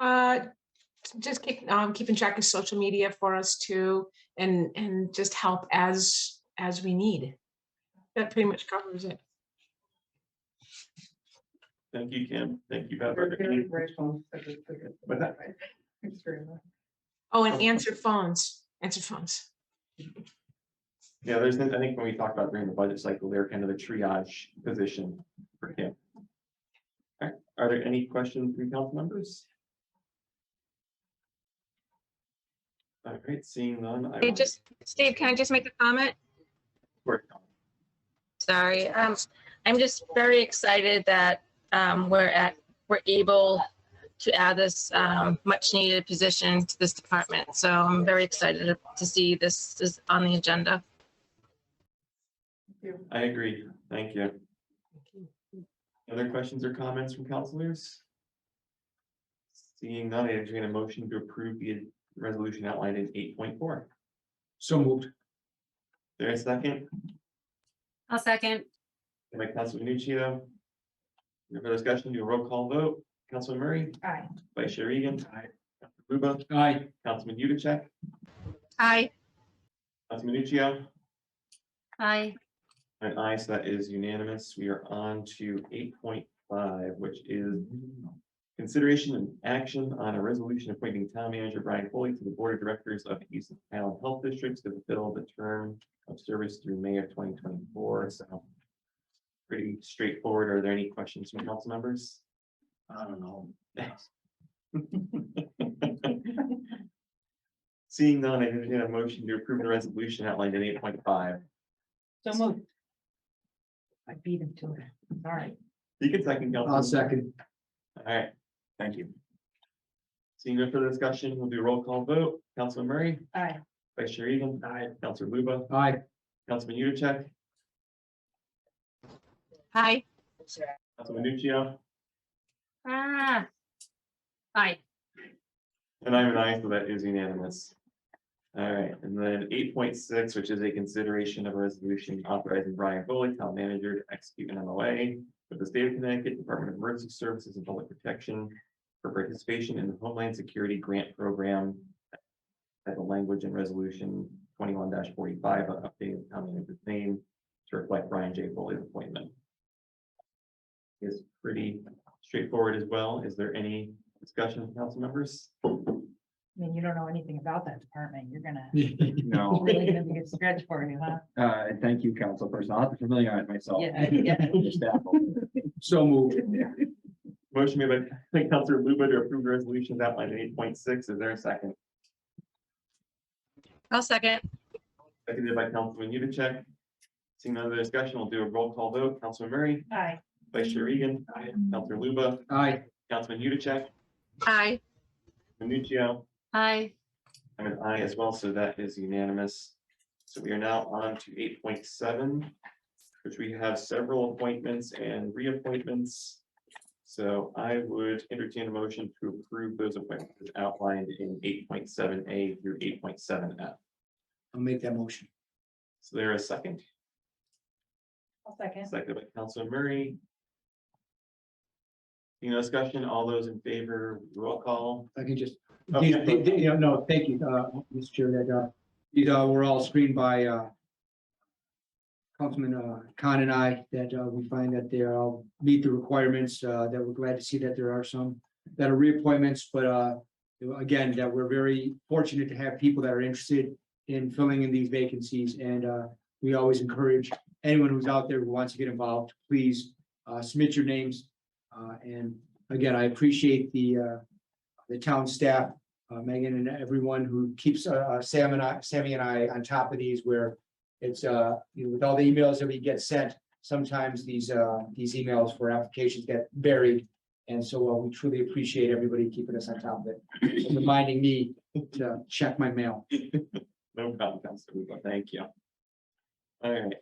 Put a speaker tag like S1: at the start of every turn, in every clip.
S1: Uh, just keep, um, keeping track of social media for us too, and, and just help as, as we need. That pretty much covers it.
S2: Thank you, Kim. Thank you,
S3: We're very
S2: Heather.
S3: grateful for the- for the-
S2: But that-
S3: Thanks very much.
S1: Oh, and answer phones, answer phones.
S2: Yeah, there's, I think when we talked about during the budget cycle, they're kind of the triage position for Kim. All right, are there any questions from council members? All right, seeing none. I
S4: Hey,
S2: will-
S4: just, Steve, can I just make a comment? Sorry. Um, I'm just very excited that, um, we're at, we're able to add this, um, much needed position to this department. So I'm very excited to see this is on the agenda.
S3: Thank you.
S2: I agree. Thank you. Other questions or comments from councilors? Seeing none, I entertain a motion to approve the resolution outlined in eight point four.
S5: So moved.
S2: There a second?
S6: I'll second.
S2: And by Council Nuccio. No further discussion, do a roll call vote. Councilman Murray,
S3: Aye.
S2: Vice Chair Egan. Aye. Luba,
S5: Aye.
S2: Councilman Yudichak,
S4: Aye.
S2: Councilman Nuccio.
S6: Aye.
S2: And aye, so that is unanimous. We are on to eight point five, which is consideration and action on a resolution appointing town manager Brian Foley to the board of directors of East Town Health Districts to fulfill the term of service through May of twenty twenty-four, so pretty straightforward. Are there any questions from council members? I don't know. Seeing none, I entertain a motion to approve the resolution outlined in eight point five.
S3: So moved. I beat him to it. All right.
S2: You can second.
S5: I'll
S2: Councilman.
S5: second.
S2: All right, thank you. Seeing no further discussion, we'll do a roll call vote. Councilman Murray,
S3: Aye.
S2: Vice Chair Egan. Aye. Councilor Luba,
S5: Aye.
S2: Councilman Yudichak,
S4: Aye.
S2: Councilman Nuccio,
S6: Ah. Aye.
S2: and I'm an aye, so that is unanimous. All right, and then eight point six, which is a consideration of a resolution authorizing Brian Foley, town manager, to execute an MOA with the state of Connecticut Department of Emergency Services and Public Protection for participation in the Homeland Security Grant Program at the language in resolution twenty-one forty-five, on updating the town manager's name to reflect Brian J. Foley's appointment. Is pretty straightforward as well. Is there any discussion, council members?
S3: I mean, you don't know anything about that department. You're gonna
S7: No,
S3: really gonna get stretched for you, huh?
S7: uh, and thank you, councilperson. I'll have to familiarize myself.
S3: Yeah, yeah.
S7: with your staff over there.
S5: So moved.
S2: Motion made by Councilor Luba to approve the resolution outlined in eight point six. Is there a second?
S4: I'll second.
S2: Seconded by Councilman Yudichak. Seeing no other discussion, we'll do a roll call vote. Councilman Murray,
S3: Aye.
S2: Vice Chair Egan, Councilor Luba,
S5: Aye.
S2: Councilman Yudichak,
S4: Aye.
S2: Menuchio,
S6: Aye.
S2: I'm an I as well, so that is unanimous. So we are now on to eight point seven, which we have several appointments and reappointments. So I would entertain a motion to approve those appointments as outlined in eight point seven A through eight point seven F.
S5: I'll make that motion.
S2: So there a second,
S3: I'll second.
S2: seconded by Councilman Murray. You know, discussion, all those in favor, roll call.
S5: I can just,
S2: Oh,
S5: these,
S2: yeah.
S5: they- they- you know, no, thank you, uh, Mr. Chair, that, uh, these, uh, were all screened by, uh, Councilman, uh, Khan and I, that, uh, we find that they all meet the requirements, uh, that we're glad to see that there are some that are reappointments, but, uh, again, that we're very fortunate to have people that are interested in filling in these vacancies, and, uh, we always encourage anyone who's out there who wants to get involved, please, uh, submit your names. Uh, and again, I appreciate the, uh, the town staff, uh, Megan and everyone who keeps, uh, uh, Sam and I, Sammy and I on top of these where it's, uh, you know, with all the emails that we get sent, sometimes these, uh, these emails for applications get buried. And so uh, we truly appreciate everybody keeping us on top of it, and reminding me to check my mail.
S2: No problem, Councilor Luba, thank you. All right.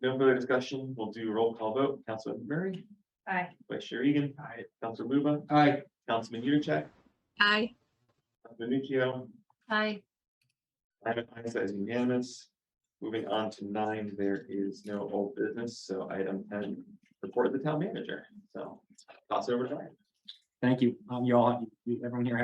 S2: No further discussion, we'll do a roll call vote, Councilman Murray,
S3: Aye.
S2: Vice Chair Egan, Councilor Luba,
S5: Aye.
S2: Councilman Yudichak,
S4: Aye.
S2: Councilman Nuccio,
S6: Aye.
S2: I'm an aye, so that is unanimous. Moving on to nine, there is no old business, so item ten, report of the town manager, so toss over to Ryan.
S7: Thank you. Um, you all, you- everyone here